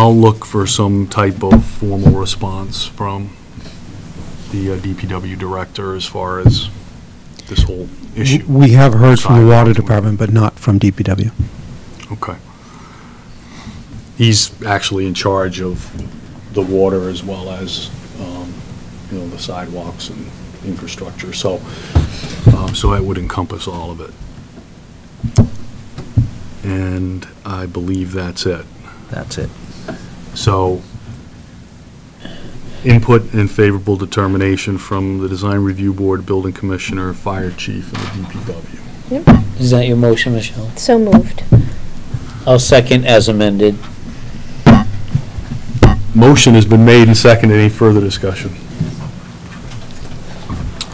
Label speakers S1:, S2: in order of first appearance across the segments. S1: I'll look for some type of formal response from the uh, DPW director as far as this whole issue.
S2: We have heard from the water
S1: Sidewalks.
S2: department, but not from DPW.
S1: Okay. He's actually in charge of the water as well as, um, you know, the sidewalks and infrastructure, so, um, so that would encompass all of it. And I believe that's it.
S3: That's it.
S1: So, input and favorable determination from the Design Review Board, Building Commissioner, Fire Chief, and the DPW.
S3: Is that your motion, Michelle?
S4: So moved.
S3: I'll second as amended.
S1: Motion has been made and seconded. Any further discussion?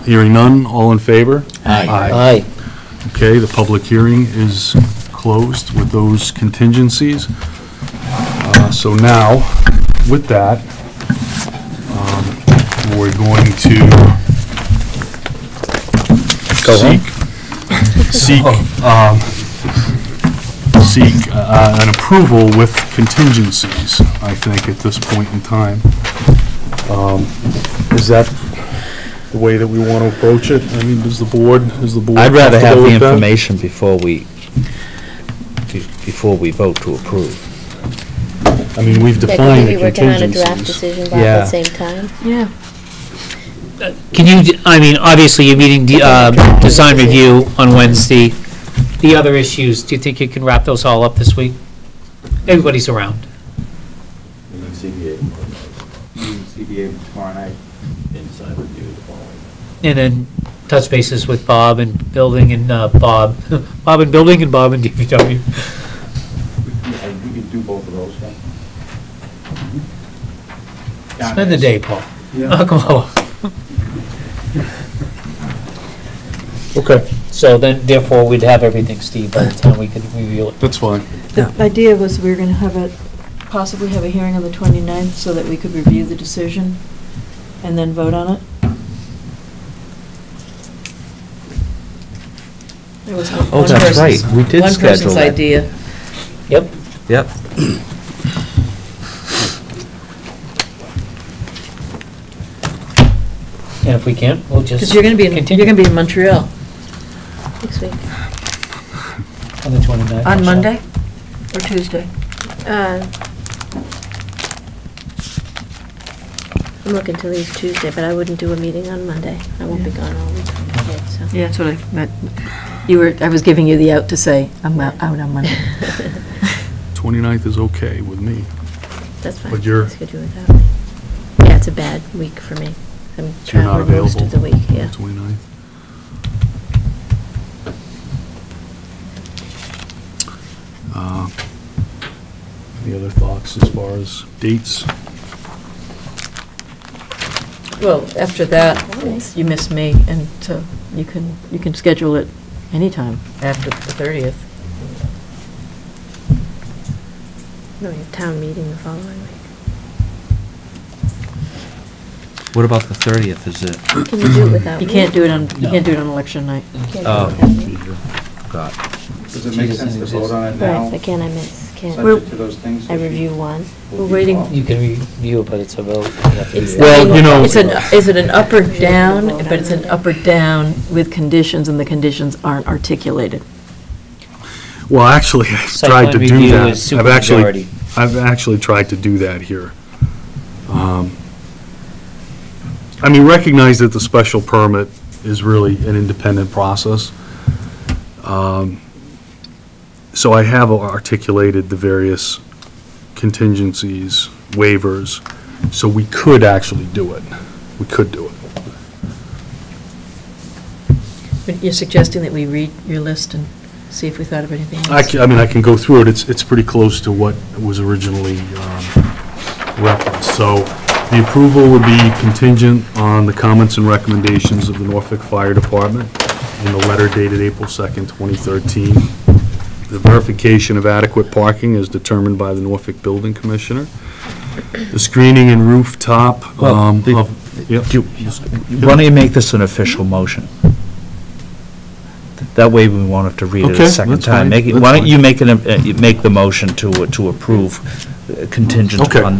S1: Hearing none, all in favor?
S3: Aye.
S1: Okay, the public hearing is closed with those contingencies. Uh, So now, with that, um, we're going to
S3: Go home?
S1: seek, seek, um, seek uh, an approval with contingencies, I think, at this point in time. Um, Is that the way that we want to approach it? I mean, does the board, is the board
S5: I'd rather have
S1: comfortable
S5: the
S1: with that?
S5: information before we, be- before we vote to approve.
S1: I mean, we've
S4: Yeah,
S1: defined
S4: could
S1: the
S4: you be working on a draft
S1: contingencies.
S4: decision, Bob, at
S5: Yeah.
S4: the same time?
S6: Yeah.
S3: Can you, d- I mean, obviously, you're meeting, the, uh, design review on Wednesday. The other issues, do you think you can wrap those all up this week? Everybody's around.
S7: And then CBA. CBA tomorrow night. Inside review the following.
S3: And then touch bases with Bob and building and, uh, Bob, Bob and building and Bob and DPW.
S7: Yeah, We could do both of those, huh?
S3: Spend the day, Paul. Oh, come on.
S1: Okay,
S3: So then, therefore, we'd have everything, Steve, by the time we could review it.
S1: that's fine.
S6: The idea was we were going to have a, possibly have a hearing on the 29th so that we could review the decision and then vote on it. There was one
S5: Oh,
S6: one
S5: that's right,
S6: person's-
S5: we did
S6: One
S5: schedule
S6: person's
S5: that.
S6: idea.
S3: Yep.
S5: Yep.
S3: And if we can't, we'll just.
S6: Because you're going to be, in-
S3: continue
S6: you're going to be in Montreal.
S4: Next week.
S3: On the 29th. I'm sorry.
S6: or Tuesday?
S4: Uh, I'm looking to leave Tuesday, but I wouldn't do a meeting on Monday. I won't be gone all week. so.
S6: Yeah, that's what I, that- you were, I was giving you the out to say, I'm out out on Monday.
S1: 29th is okay with me.
S4: That's fine.
S1: But you're-
S4: Let's go do it that way. Yeah, it's a bad week for me. I'm
S1: So you're not
S4: traveling most of the
S1: available?
S4: week, yeah.
S1: 29th. Uh, Any other thoughts as far as dates?
S6: Well, after that, you miss me, and so you can, you can schedule it anytime. After the 30th.
S4: No, you have town meeting the following week.
S5: What about the 30th, is it?
S4: Can you do it without me?
S6: You can't do it on, you
S3: No.
S6: can't do it on election night.
S4: Can't do it
S5: Oh.
S4: without me.
S5: God.
S7: Does it make
S3: She doesn't
S7: sense to vote on it now?
S4: Right, but can I miss? Can't.
S7: Subject to those things?
S4: I
S7: if you-
S4: review one.
S7: will
S6: We're
S7: be
S6: waiting-
S7: involved?
S3: You can review it, but it's a vote. You have to
S4: It's
S3: do it.
S1: Well, you know-
S6: It's an, is it an up or down, but it's an up or down with conditions, and the conditions aren't articulated.
S1: Well, actually, I've
S3: Site
S1: tried to
S3: plan
S1: do
S3: review
S1: that.
S3: is
S1: I've actually,
S3: supermajority.
S1: I've actually tried to do that here. Um, I mean, recognize that the special permit is really an independent process. Um, So I have articulated the various contingencies, waivers, so we could actually do it. We could do it.
S6: But You're suggesting that we read your list and see if we thought of anything else?
S1: I ca- I mean, I can go through it, it's, it's pretty close to what was originally um, referenced. So the approval would be contingent on the comments and recommendations of the Norfolk Fire Department in the letter dated April 2nd, 2013. The verification of adequate parking is determined by the Norfolk Building Commissioner. The screening and rooftop
S5: Well,
S1: um,
S5: the-
S1: of... Yep.
S5: Why don't you make this an official motion?
S3: That way we won't have to read it
S1: Okay,
S3: a second
S1: that's
S3: time.
S1: fine,
S3: Make it-
S1: that's
S3: Why don't
S1: fine.
S3: you make an, uh, make the motion to, to approve uh, contingent
S1: Okay.
S3: on